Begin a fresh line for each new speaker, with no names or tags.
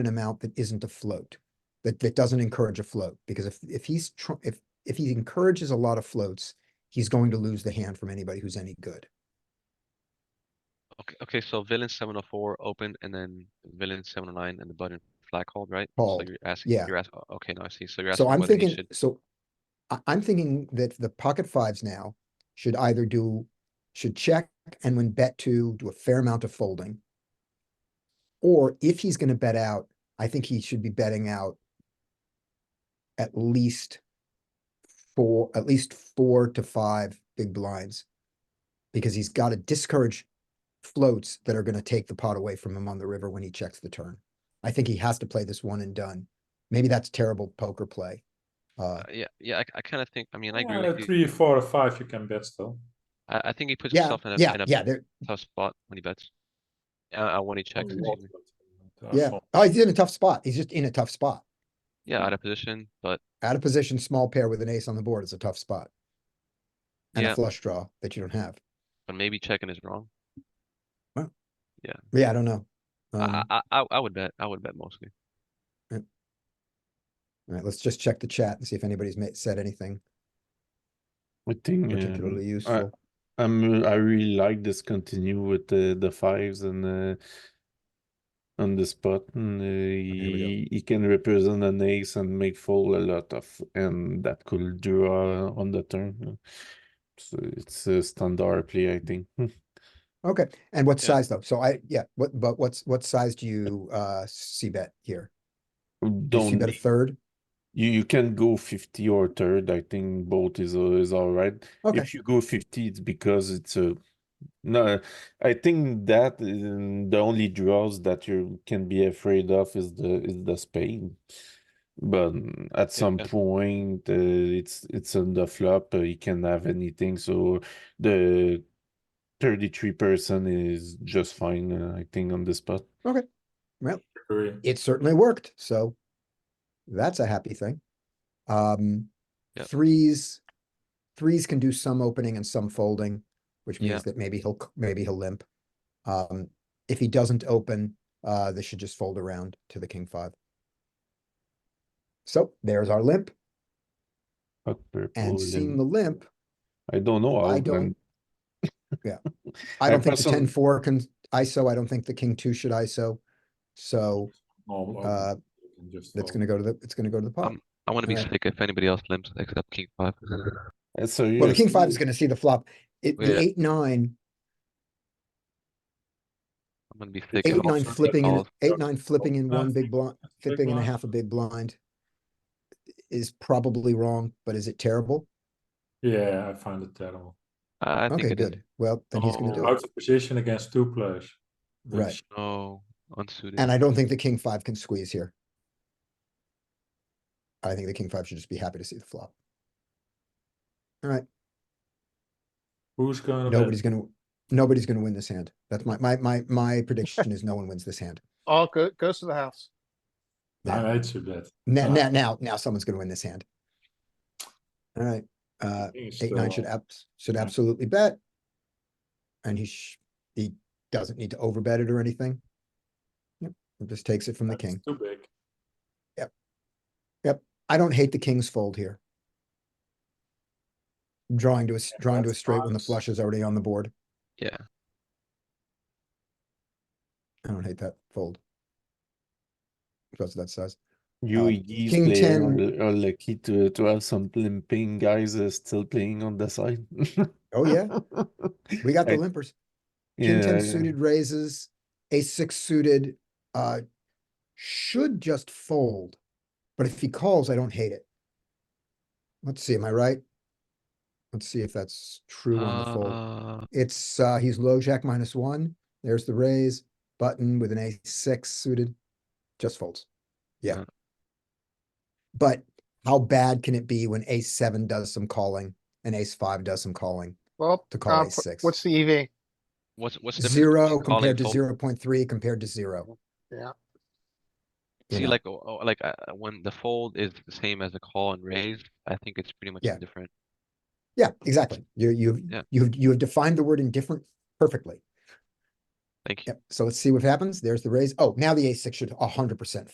an amount that isn't a float, that, that doesn't encourage a float, because if, if he's, tr- if, if he encourages a lot of floats, he's going to lose the hand from anybody who's any good.
Okay, okay, so villain seven oh four open and then villain seven oh nine and the button flag hold, right?
Called,
So you're asking,
yeah.
you're asking, okay, now I see. So you're asking
So I'm
whether he
thinking,
should,
so I, I'm thinking that the pocket fives now should either do, should check and when bet two, do a fair amount of folding. Or if he's gonna bet out, I think he should be betting out at least four, at least four to five big blinds. Because he's gotta discourage floats that are gonna take the pot away from him on the river when he checks the turn. I think he has to play this one and done. Maybe that's terrible poker play. Uh,
uh, yeah, yeah, I, I kind of think, I mean, I agree
Well,
with
at
you.
three, four, or five, you can bet still.
I, I think he puts
yeah,
himself in a,
yeah,
in a
yeah, there,
tough spot when he bets. Uh, uh, when he checks,
Not,
excuse me.
but, uh,
yeah.
so-
Oh, he's in a tough spot. He's just in a tough spot.
yeah, out of position, but
Out of position, small pair with an ace on the board is a tough spot. And
Yeah.
a flush draw that you don't have.
but maybe checking is wrong.
Yeah, I don't know.
I,
Um,
I, I, I would bet, I would bet mostly.
all right, let's just check the chat and see if anybody's made, said anything
I think um,
particularly useful.
I'm uh, I really like this continue with the the fives and uh, on the spot and uh,
Oh, we go.
he, he can represent an ace and make fold a lot of and that could draw on the turn. So it's a standard play, I think.
Okay, and what
Yeah.
size though? So I, yeah, what, but what's, what size do you, uh, see bet here? Do you see
Don't
bet a third?
you you can go 50 or third. I think both is uh, is all right.
Okay,
If you go 50, it's because it's a no. I think that um, the only draws that you can be afraid of is the is the spade. But mm, at some
yeah.
point, uh, it's it's on the flop. Uh, you can have anything. So the 33% is just fine. Uh, I think on the spot.
Three.
it certainly worked, so that's a happy thing. Um,
Yep.
threes, threes can do some opening and some folding, which
Yeah.
means that maybe he'll, c- maybe he'll limp. Um, if he doesn't open, uh, they should just fold around to the king five. So there's our limp,
Hot purple.
and seeing
and-
the limp,
I don't know.
I
how,
don't-
man.
I
I
don't think the
person-
ten four can ISO, I don't think the king two should ISO. So,
Normal open,
uh,
you can just
that's
fold.
gonna go to the, it's gonna go to the pot.
Um, I wanna be
Alright.
sick if anybody else limps except king five.
Uh, So
Well, the king
yes,
five is gonna see the flop. It, the
Yeah.
eight, nine,
I'm gonna be sick. if
eight, oh
all
nine
three
flipping, in
calls.
eight, nine flipping in
No,
one big
think
blind,
big
flipping and a
blind.
half a big blind is probably wrong, but is it terrible?
Yeah, I find it terrible.
I I think
Okay,
it is.
good. Well, then he's gonna
Oh,
do
Out
it.
of position against two players. Then
Right.
sh-
No, unsuited.
And I don't think the king five can squeeze here. I think the king five should just be happy to see the flop.
Who's going to bet?
Nobody's gonna, nobody's gonna win this hand. That's my, my, my, my prediction is no one wins this hand.
Oh, go, goes to the house.
I hate you bet.
Now,
Uh,
now, now, now someone's gonna win this hand. All right, uh, Eight, nine should abs, should
yeah.
absolutely bet. And he sh- he doesn't need to overbet it or anything. Yep, it just takes it from the king.
Too big.
I don't hate the king's fold here. Drawing to a, s-
Yeah,
drawing to a
that's
straight when the
nice.
flush is already on the board.
Yeah,
I don't hate that fold. Because of that size.
You
Uh,
Iggy's
King
player
10.
are, are lucky to to have euh, some limping guys uh, still playing on the side.
Oh, yeah, we got the
I-
limpers. King
yeah,
ten
yeah.
suited raises, ace six suited, uh, should just fold. But if he calls, I don't hate it. Let's see, am I right? Let's see if that's true on the fold.
uh,
It's, uh, he's low jack minus one. There's the raise button with an ace six suited, just folds. Yeah.
Yeah.
But how bad can it be when ace seven does some calling and ace five does some calling?
Well,
To call
uh,
a
f-
six.
what's the EV?
what's, what's the difference
Zero
between calling
compared to
fold?
zero point three compared to zero.
Yeah.
you
See,
know?
like, oh, oh, like uh, uh, when the fold is the same as the call and raise, I think it's pretty much
Yeah.
different.
Yeah, exactly. You, you,
Yeah.
you, you have defined the word indifferent perfectly.
Thank you.
Yep. So let's see what happens. There's the raise. Oh, now the ace six should a hundred percent